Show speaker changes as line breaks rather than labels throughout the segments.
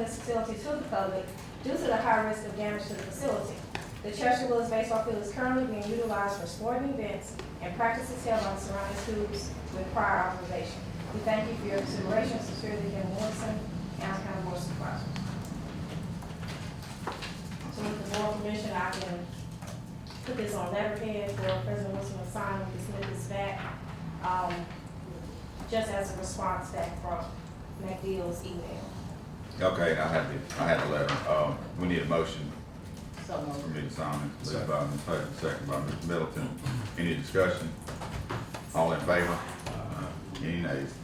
this facility to the public due to the high risk of damage to the facility. The Church of Willis Baseball Field is currently being utilized for sporting events and practices held on surrounding schools with prior authorization. We thank you for your consideration, sincerely, Jim Wilson, Allen County Board of Supervisors. So with the board permission, I can put this on letterhead for President Wilson to sign when he submits back, um, just as a response back from McDeal's email.
Okay, I had to, I had to let, um, we need a motion
So
for
moved.
me to sign it, Moved by Ms. Hutton, second by Ms. Middleton. Any discussion? All in favor? Uh, Any nays?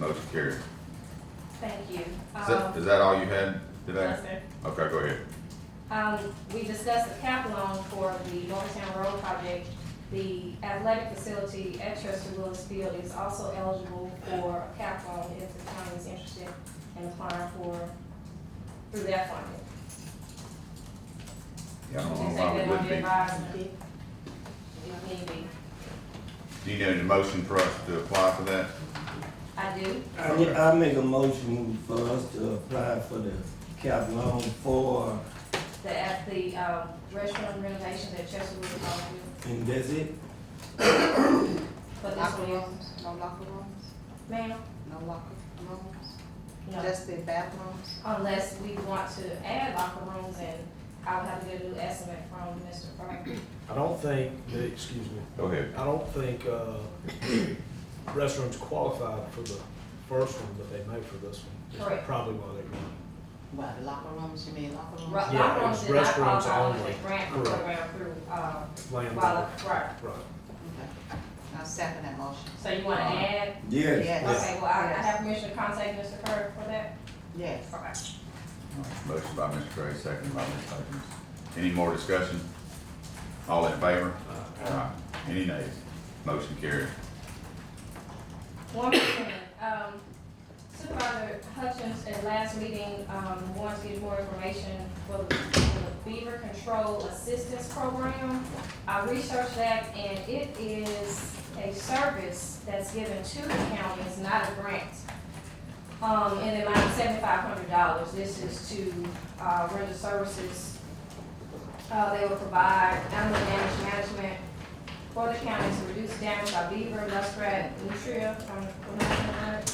Motion carried.
Thank you.
Is that,
Um,
is that all you had today?
yes, sir.
Okay, go ahead.
Um, we discussed the cap loan for the Norristown Road project. The athletic facility at Chester Willis Field is also eligible for a cap loan if the county is interested in applying for, through that funding.
Yeah, I
Would
don't
you
know
say
why
that
we
on
wouldn't
the
be.
advisement? If need be.
Do you need a motion for us to apply for that?
I do.
I ma- I make a motion for us to apply for the cap loan for,
The, at the, um, restaurant renovations at Chester Wood Hall,
and that's it?
but this
Locker
one,
rooms, no locker rooms,
ma'am,
no locker rooms,
no,
just the bathrooms.
unless we want to add locker rooms and I would have to get a new estimate from Mr. Frank.
I don't think, excuse me,
Go ahead.
I don't think uh, restaurants qualified for the first one, but they may for this one. That's
Correct.
Probably why they're going.
What, locker rooms, you mean locker
Ro-
rooms?
Yeah,
Locker rooms
it's
did not
restaurants
qualify under
only.
the grant
Correct.
program through, uh,
Land
while, right,
Right.
Okay. I'll second that motion.
so you wanna add?
Yes.
Yes.
Okay, well, I, I have permission to contact Mr. Kirk for that,
Yes.
okay.
Motion by Mr. Gray, second by Ms. Hutton. Any more discussion? All in favor? Aye. Any nays? Motion carried.
One more thing, um, Supervisor Hutchins at last meeting, um, wants to get more information for the for the Beaver Control Assistance Program. I researched that and it is a service that's given to the county, it's not a grant. Um, in the amount of seventy-five hundred dollars, this is to, uh, render services. Uh, they will provide animal damage management, for the county to reduce damage by beaver, muskrat, nutria, um, pronouncing that,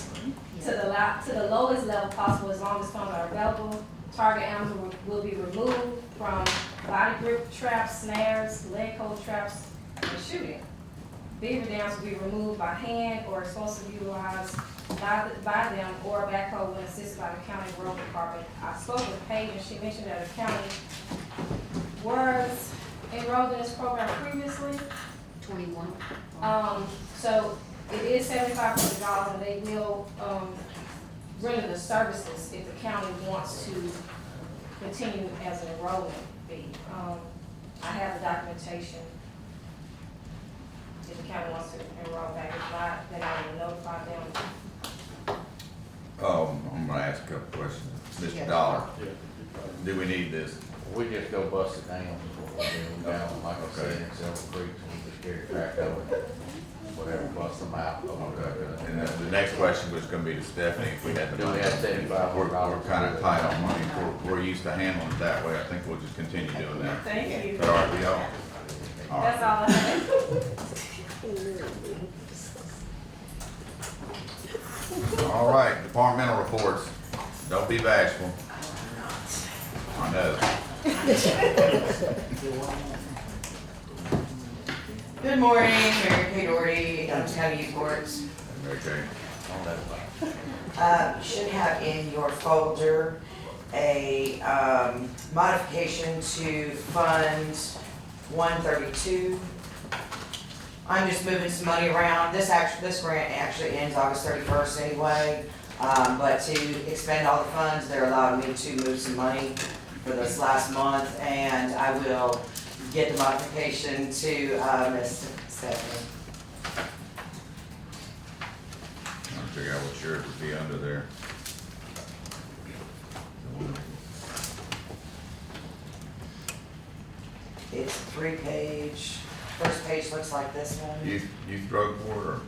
to the la, to the lowest level possible as long as funds are available. Target animals will will be removed from body grip traps, snares, leg hold traps, and shooting. Beaver dams will be removed by hand or explosive utilized by, the- by them or a backhoe when assisted by the county road department. I spoke with Paige and she mentioned that the county was enrolled in this program previously.
Twenty-one.
Um, so it is seventy-five hundred dollars and they will, um, render the services if the county wants to continue as an enrollment fee. Um, I have the documentation. If the county wants to enroll back, if not, then I will notify them.
Um, I'm gonna ask a couple questions. Mr.
Yes.
Dollar, do we need this?
We just go bust it down, is what we do, down, like I said, in several creeks, we just carry crack over, whatever, bust them out.
Okay, Uh, and then the next question was gonna be to Stephanie, if we had the
Do
money.
we have $75?
We're, we're kinda tight on money, we're, we're used to handling it that way, I think we'll just continue doing that.
Thank you.
Is that all right with y'all? All
That's
right.
all I have.
All right, departmental reports, don't be bashful. I know.
Good morning, Mary Kay Doherty, Adams County Youth Boards.
Okay,
Uh, you should have in your folder a, um, modification to Fund one thirty-two. I'm just moving some money around, this act, this grant actually ends August thirty-first anyway, um, but to expend all the funds, they're allowing me to move some money for this last month, and I will get the modification to, uh, Ms. Stephanie.
I'm trying to figure out what shirt would be under there.
It's three page, first page looks like this one.
Youth, youth drug board or Oh.